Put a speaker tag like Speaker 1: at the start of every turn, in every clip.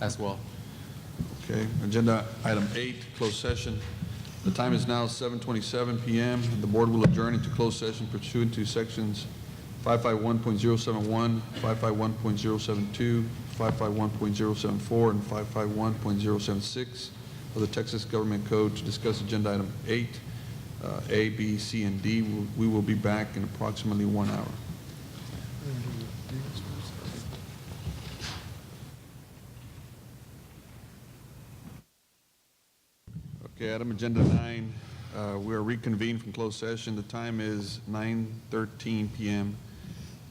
Speaker 1: as well.
Speaker 2: Okay, agenda item eight, closed session. The time is now 7:27 PM. The board will adjourn into closed session pursuant to sections 551.071, 551.072, 551.074, and 551.076 of the Texas Government Code to discuss agenda item eight, uh, A, B, C, and D. We will be back in approximately one hour. Okay, item agenda nine, uh, we are reconvened from closed session. The time is 9:13 PM.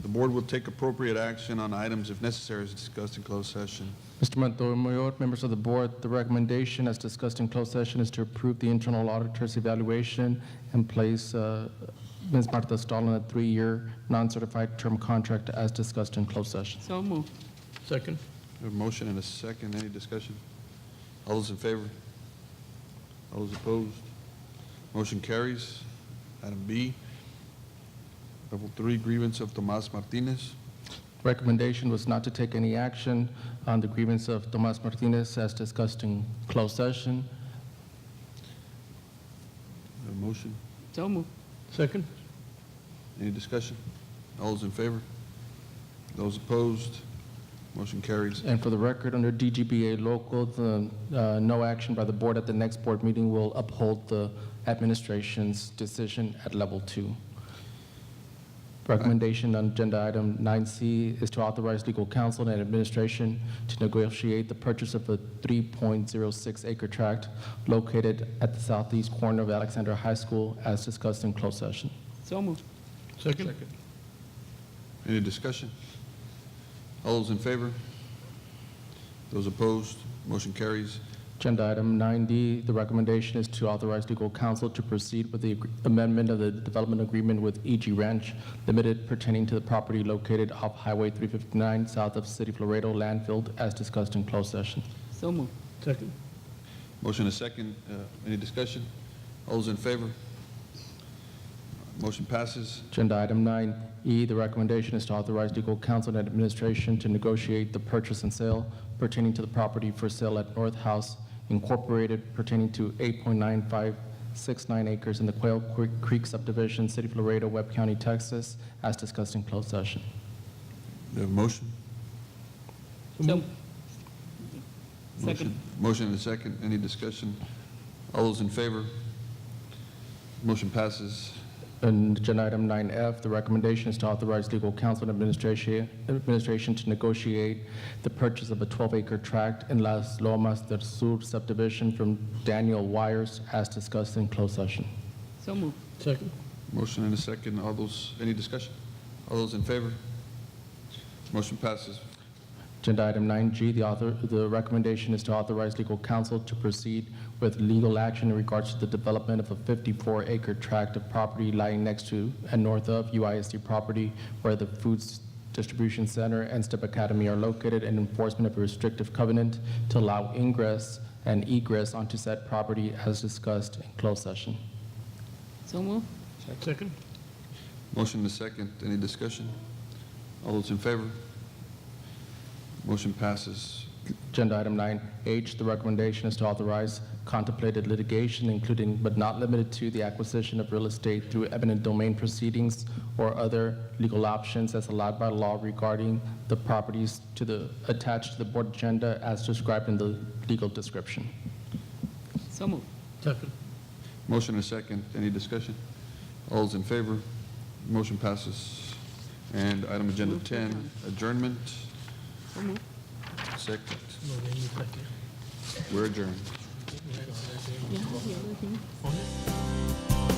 Speaker 2: The board will take appropriate action on items if necessary as discussed in closed session.
Speaker 3: Mr. Montemayor, members of the board, the recommendation as discussed in closed session is to approve the internal auditor's evaluation and place uh, Ms. Martha Stahl on a three-year non-certified term contract as discussed in closed session.
Speaker 4: So moved.
Speaker 5: Second.
Speaker 2: We have A motion and a second, any discussion? All those in favor? All those opposed? Motion carries. Item B, level three grievance of Tomas Martinez.
Speaker 3: Recommendation was not to take any action on the grievance of Tomas Martinez as discussed in closed session.
Speaker 2: We have A motion,
Speaker 4: So moved.
Speaker 5: Second.
Speaker 2: any discussion? All those in favor? Those opposed? Motion carries.
Speaker 3: And for the record, under DGBA local, the uh, no action by the board at the next board meeting will uphold the administration's decision at level two. Recommendation on agenda item 9C is to authorize legal counsel and administration to negotiate the purchase of a 3.06 acre tract located at the southeast corner of Alexandra High School as discussed in closed session.
Speaker 4: So moved.
Speaker 5: Second.
Speaker 2: Any discussion? All those in favor? Those opposed? Motion carries.
Speaker 3: Agenda item 9D, the recommendation is to authorize legal counsel to proceed with the agree- amendment of the development agreement with EG Ranch Limited pertaining to the property located off Highway 359 south of City Laredo landfill as discussed in closed session.
Speaker 4: So moved.
Speaker 5: Second.
Speaker 2: Motion a second. Uh, Any discussion? All those in favor? Motion passes.
Speaker 3: Agenda item 9E, the recommendation is to authorize legal counsel and administration to negotiate the purchase and sale pertaining to the property for sale at North House Incorporated pertaining to 8.9569 acres in the Quail Creek- Creek subdivision, City of Laredo, Webb County, Texas, as discussed in closed session.
Speaker 2: We have a motion?
Speaker 4: So moved. Second.
Speaker 2: Motion- Motion and a second. Any discussion? All those in favor? Motion passes.
Speaker 3: And agenda item 9F, the recommendation is to authorize legal counsel and administration, administration to negotiate the purchase of a 12-acre tract in Las Lomas del Sur subdivision from Daniel Wires as discussed in closed session.
Speaker 4: So moved.
Speaker 5: Second.
Speaker 2: Motion and a second. All those, any discussion? All those in favor? Motion passes.
Speaker 3: Agenda item 9G, the author, the recommendation is to authorize legal counsel to proceed with legal action in regards to the development of a 54-acre tract of property lying next to and north of UISD property where the Foods Distribution Center and STEP Academy are located and enforcement of a restrictive covenant to allow ingress and egress onto said property as discussed in closed session.
Speaker 4: So moved.
Speaker 5: Second.
Speaker 2: Motion to second. Any discussion? All those in favor? Motion passes.
Speaker 3: Agenda item 9H, the recommendation is to authorize contemplated litigation, including but not limited to the acquisition of real estate through eminent domain proceedings or other legal options as allowed by law regarding the properties to the, attached to the board agenda as described in the legal description.
Speaker 4: So moved.
Speaker 5: Second.
Speaker 2: Motion to second. Any discussion? All those in favor? Motion passes. And item agenda
Speaker 4: Move to
Speaker 2: 10,
Speaker 4: adjourn.
Speaker 2: adjournment.
Speaker 4: So moved.
Speaker 2: Second.
Speaker 5: No, they need second.
Speaker 2: We're adjourned.
Speaker 4: Yeah, the other thing.
Speaker 5: On it?